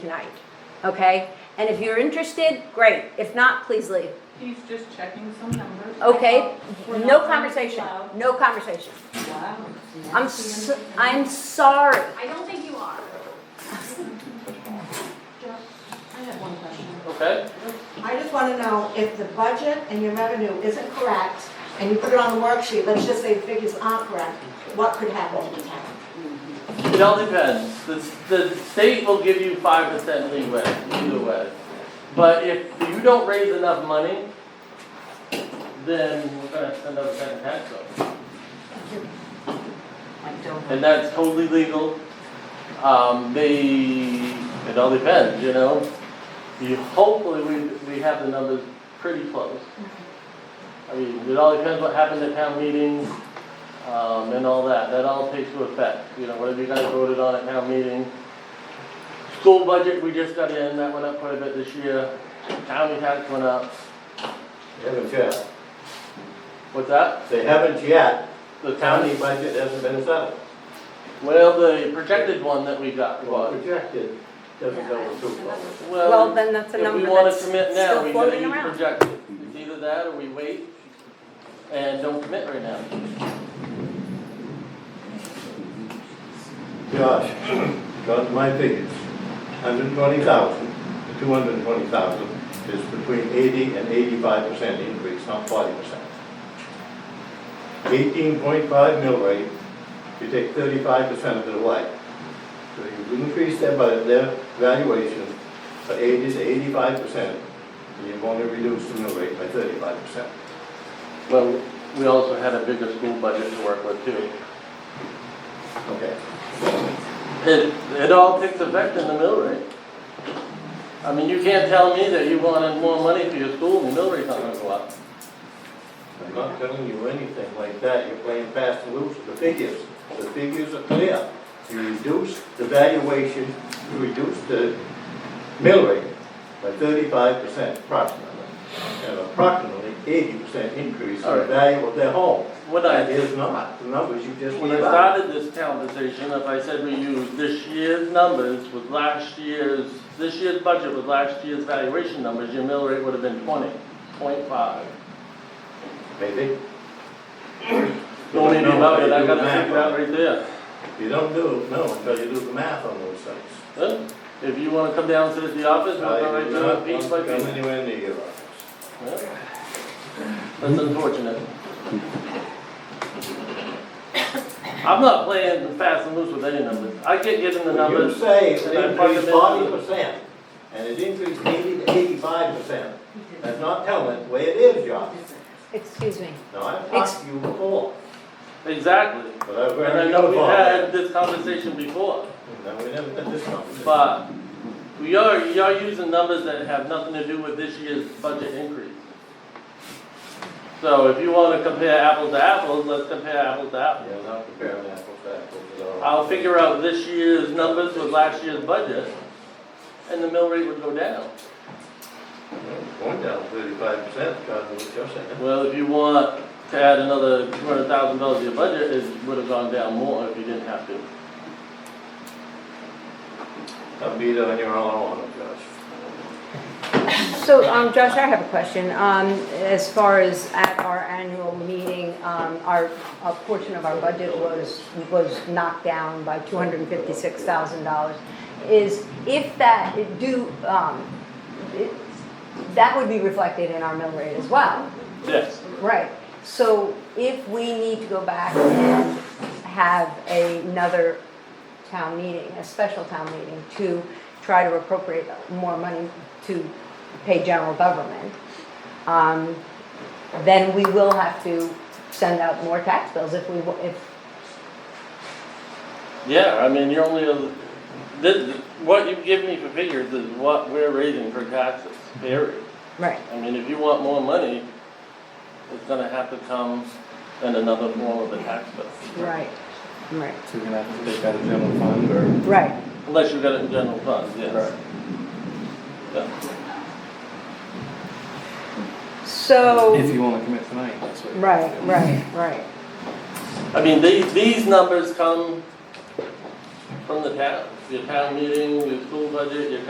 tonight, okay? And if you're interested, great. If not, please leave. He's just checking some numbers. Okay? We're No not conversation. allowed. No conversation. Wow. I'm s am sorry. I don't think you are. I have one question. Okay, I just want to know if the budget and your revenue isn't correct, and you put it on the worksheet, let's just say the figures aren't correct, what could happen to the town? it all depends. The, the state will give you five percent leeway, either way. But if you don't raise enough money, then we're gonna send out a second tax bill. I don't And that's totally legal. Um, they, it all depends, you know? You, hopefully, we, we have the numbers pretty close. I mean, it all depends what happened at town meeting, um, and all that, that all takes into effect, you know, whatever you guys voted on at town meeting. School budget, we just got in, that went up quite a bit this year, county tax went up, They Haven't yet. what's that? They haven't yet. The The county, county budget hasn't been settled. well, the projected one that we got was, Projected doesn't go with Super Bowl. Well, then that's a If we number wanna that's commit now, still we gotta floating use around. projected. It's either that or we wait and don't commit right now. Josh, got my figures. Hundred twenty thousand, the two hundred twenty thousand is between eighty and eighty-five percent increase, not forty percent. Eighteen point five mill rate, you take thirty-five percent of it away. So you increase their, bu- their valuation by eighty to eighty-five percent, and you've only reduced the mill rate by thirty-five percent. Well, we also had a bigger school budget to work with too. Okay. It, it all takes effect in the mill rate. I mean, you can't tell me that you wanted more money for your school and the mill rate's not gonna go up. I'm not telling you anything like that, you're playing fast and loose with the figures. The figures are clear. You reduce the valuation, you reduce the mill rate by thirty-five percent approximately. And approximately eighty percent increase in All the right. value of their home. When That I, is not the numbers you just when I gave out. started this conversation, if I said we use this year's numbers with last year's, this year's budget with last year's valuation numbers, your mill rate would have been twenty, point five. Maybe. Don't even know know it, until I you do gotta the math figure out on right there. it. You don't do, no, until you do the math on those things. Huh? If you wanna come down, sit at the office, we'll go right through it piece by I do not want to piece. come anywhere near your office. Well, That's unfortunate. I'm not playing fast and loose with any numbers. I get given the When you numbers. say it and I plug increased them in. forty percent, and it increased eighty to eighty-five percent, that's not telling it the way it is, John. Excuse me. Now, I've talked to you before, Exactly. but I've And I heard you know we before. had this conversation before, No, we never had this conversation. but we are, you are using numbers that have nothing to do with this year's budget increase. So if you wanna compare apples to apples, let's compare apples to apples. You're not comparing apples to apples at all. I'll figure out this year's numbers with last year's budget, and the mill rate would go down. Going down thirty-five percent, because of what you're saying. Well, if you want to add another two hundred thousand dollars to your budget, it would have gone down more if you didn't have to. I'll beat on your own horn, Josh. So, um, Josh, I have a question. Um, as far as at our annual meeting, um, our, a portion of our budget was, was knocked down by two hundred and fifty-six thousand dollars. Is, if that, do, um, it- that would be reflected in our mill rate as well. Yes. Right, so if we need to go back and have another town meeting, a special town meeting, to try to appropriate more money to pay general government, um, then we will have to send out more tax bills if we, wa- if, Yeah, I mean, you're only, a- this, what you give me for figures is what we're raising for taxes, period. right, I mean, if you want more money, it's gonna have to come in another form of a tax bill. right, right, So we're gonna have to take out a general fund or? right. Unless you got it in general fund, yes. Yeah. If So, you wanna commit tonight, that's what. right, right, right, I mean, these, these numbers come from the town, your town meeting, your school budget, your